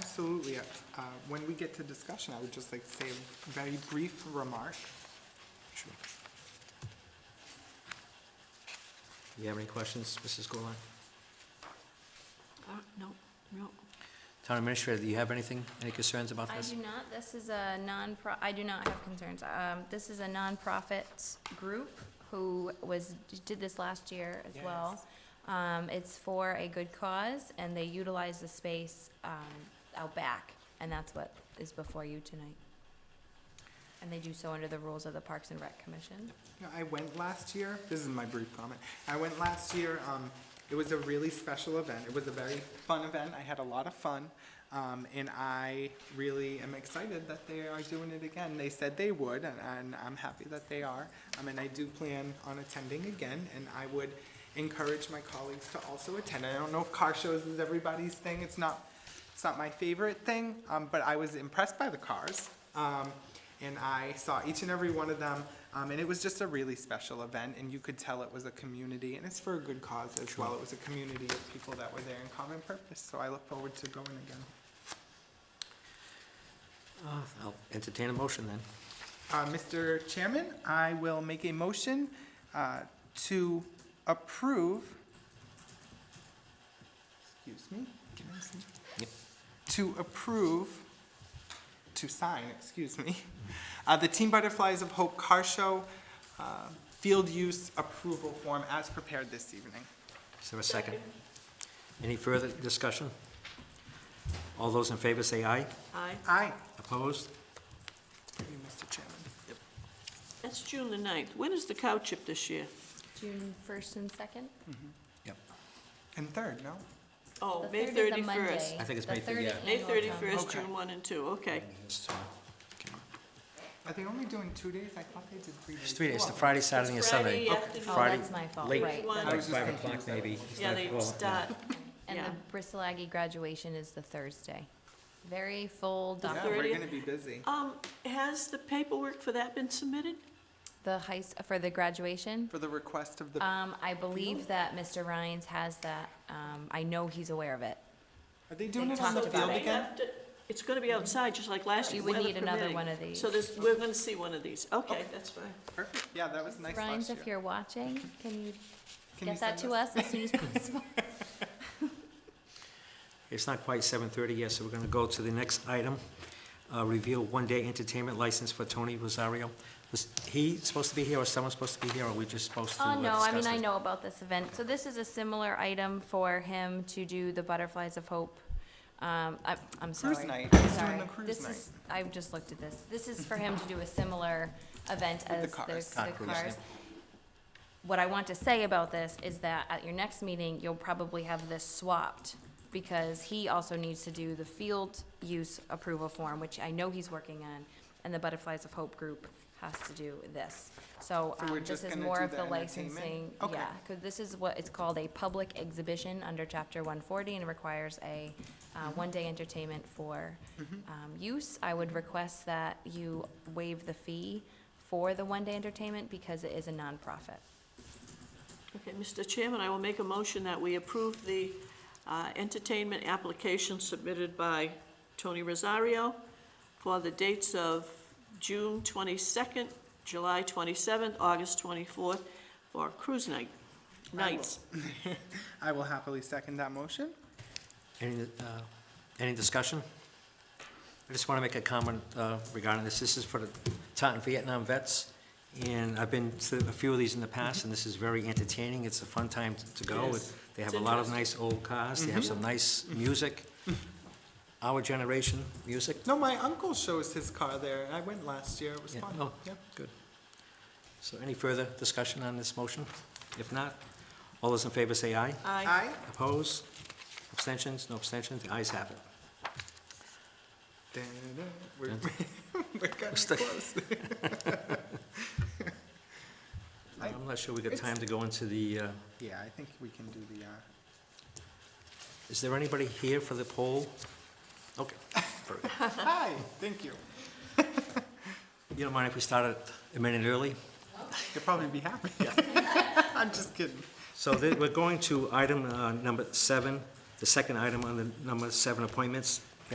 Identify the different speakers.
Speaker 1: Absolutely. Uh, When we get to discussion, I would just like to say a very brief remark.
Speaker 2: Sure. Do you have any questions, Mrs. Gulon?
Speaker 3: Uh, No, no.
Speaker 2: Town Administrator, do you have anything, any concerns about
Speaker 4: I
Speaker 2: this?
Speaker 4: do not, this is a non-pro, I do not have concerns. Um, this is a nonprofit group who was, did this last year as well. Um, it's for a good cause, and they utilize the space, um, out back, and that's what is before you tonight. And they do so under the rules of the Parks and Rec Commission.
Speaker 1: You know, I went last year, this is my brief comment. I went last year, um, it was a really special event. It was a very fun event. I had a lot of fun. Um, and I really am excited that they are doing it again. They said they would, and, and I'm happy that they are. Um, and I do plan on attending again, and I would encourage my colleagues to also attend. I don't know if car shows is everybody's thing. It's not It's not my favorite thing, um, but I was impressed by the cars. Um, and I saw each and every one of them. Um, and it was just a really special event, and you could tell it was a community, and it's for a good cause as well. It was a community of people that were there in common purpose, so I look forward to going again.
Speaker 2: Uh, I'll entertain a motion then.
Speaker 1: Uh, Mr. Chairman, I will make a motion uh, to approve, excuse me, can I see?
Speaker 2: Yep.
Speaker 1: To approve, to sign, excuse me, uh, the Team Butterflies of Hope Car Show uh, Field Use Approval Form as prepared this evening.
Speaker 2: Is there a second? Any further discussion? All those in favor say aye.
Speaker 3: Aye.
Speaker 1: Aye.
Speaker 2: Opposed?
Speaker 1: Thank you, Mr. Chairman.
Speaker 3: That's June the ninth. When is the cow chip this year?
Speaker 4: June first and second?
Speaker 2: Yep.
Speaker 1: And third, no?
Speaker 3: Oh, May thirty-first.
Speaker 2: I think it's May thir- yeah.
Speaker 3: May thirty-first,
Speaker 1: Okay.
Speaker 3: June one and two, okay.
Speaker 2: It's, uh, okay.
Speaker 1: Are they only doing two days? I thought they did three days.
Speaker 2: It's three days, it's the
Speaker 1: Oh.
Speaker 2: Friday, Saturday, and Sunday.
Speaker 3: Friday afternoon.
Speaker 4: Oh,
Speaker 2: Friday,
Speaker 4: that's my fault,
Speaker 2: late.
Speaker 4: right.
Speaker 3: One.
Speaker 2: Like
Speaker 1: was just
Speaker 2: five
Speaker 1: thinking
Speaker 2: o'clock
Speaker 1: seven.
Speaker 2: maybe.
Speaker 3: Yeah, they
Speaker 2: Well,
Speaker 3: start,
Speaker 4: And
Speaker 3: yeah.
Speaker 4: the Bristolaggy graduation is the Thursday. Very full
Speaker 3: The
Speaker 1: Yeah,
Speaker 4: document.
Speaker 1: we're
Speaker 3: 30th.
Speaker 1: gonna be busy.
Speaker 3: Um, has the paperwork for that been submitted?
Speaker 4: The heist, for the graduation?
Speaker 1: For the request
Speaker 2: Uh,
Speaker 1: of the
Speaker 4: Um, I believe that Mr. Rhines has that, um, I know he's aware of it.
Speaker 1: Are they doing
Speaker 4: They
Speaker 1: it on the
Speaker 4: talked about
Speaker 1: field
Speaker 4: it.
Speaker 1: again?
Speaker 3: Have to- It's gonna be outside, just like last year,
Speaker 4: You would
Speaker 3: weather
Speaker 4: need another
Speaker 3: permitting.
Speaker 4: one of these.
Speaker 3: So there's, we're gonna see one of these, okay, that's fine.
Speaker 1: Perfect, yeah, that was nice
Speaker 4: Rhines,
Speaker 1: last
Speaker 4: if
Speaker 1: year.
Speaker 4: you're watching, can you
Speaker 1: Can you
Speaker 4: get that
Speaker 1: send
Speaker 4: to us as soon as possible?
Speaker 2: It's not quite seven thirty yet, so we're gonna go to the next item. Uh, reveal one-day entertainment license for Tony Rosario. Was he supposed to be here, or someone supposed to be here, or we just supposed to uh,
Speaker 4: Oh, no, I mean,
Speaker 2: discuss
Speaker 4: I
Speaker 2: it?
Speaker 4: know about this event. So this is a similar item for him to do the Butterflies of Hope. Um, I, I'm sorry.
Speaker 1: Cruise night. He's doing
Speaker 4: Sorry.
Speaker 1: the cruise
Speaker 4: This is, I've just looked at this. This is for him to do a similar event
Speaker 1: the
Speaker 4: as
Speaker 1: cars.
Speaker 4: there's
Speaker 2: Ah,
Speaker 4: the
Speaker 2: cruise, yeah.
Speaker 4: cars. What I want to say about this is that at your next meeting, you'll probably have this swapped because he also needs to do the field use approval form, which I know he's working on, and the Butterflies of Hope group has to do this. So
Speaker 1: So we're
Speaker 4: um, this
Speaker 1: just
Speaker 4: is
Speaker 1: gonna
Speaker 4: more
Speaker 1: do
Speaker 4: of
Speaker 1: the
Speaker 4: the
Speaker 1: entertainment?
Speaker 4: licensing,
Speaker 1: Okay.
Speaker 4: yeah, because this is what, it's called a public exhibition under chapter one forty and requires a, uh,
Speaker 1: Mm-hmm.
Speaker 4: one-day entertainment for, um, use. I would request that you waive the fee for the one-day entertainment because it is a nonprofit.
Speaker 3: Okay, Mr. Chairman, I will make a motion that we approve the uh, entertainment application submitted by Tony Rosario for the dates of June 22nd, July 27th, August 24th for cruise night, nights.
Speaker 1: I will happily second that motion.
Speaker 2: Any, uh, any discussion? I just want to make a comment uh, regarding this. This is for the Taunton Vietnam vets, and I've been to a few of these in the past, and this is very entertaining. It's a fun time to- to go.
Speaker 3: Yes.
Speaker 2: They have
Speaker 3: It's
Speaker 2: a lot of nice
Speaker 3: interesting.
Speaker 2: old cars, they have some nice music, our generation music.
Speaker 1: No, my uncle shows his car there. I went last year. It was
Speaker 2: Yeah,
Speaker 1: fun.
Speaker 2: oh.
Speaker 1: Yep.
Speaker 2: Good. So any further discussion on this motion? If not, all those in favor say aye.
Speaker 3: Aye.
Speaker 1: Aye,
Speaker 2: Opposed? Abstentions? No abstentions? The ayes have it.
Speaker 1: Da-da-da. we're, we're getting
Speaker 2: Stick.
Speaker 1: close. Aye.
Speaker 2: I'm not sure we got time to go into the, uh,
Speaker 1: Yeah, I think we can do the, uh,
Speaker 2: is there anybody here for the poll? Okay. very good.
Speaker 1: hi, thank you.
Speaker 2: You don't mind if we started a minute early?
Speaker 1: You'll probably be happy. I'm just kidding.
Speaker 2: So th- we're going to item uh, number seven, the second item on the number seven appointments,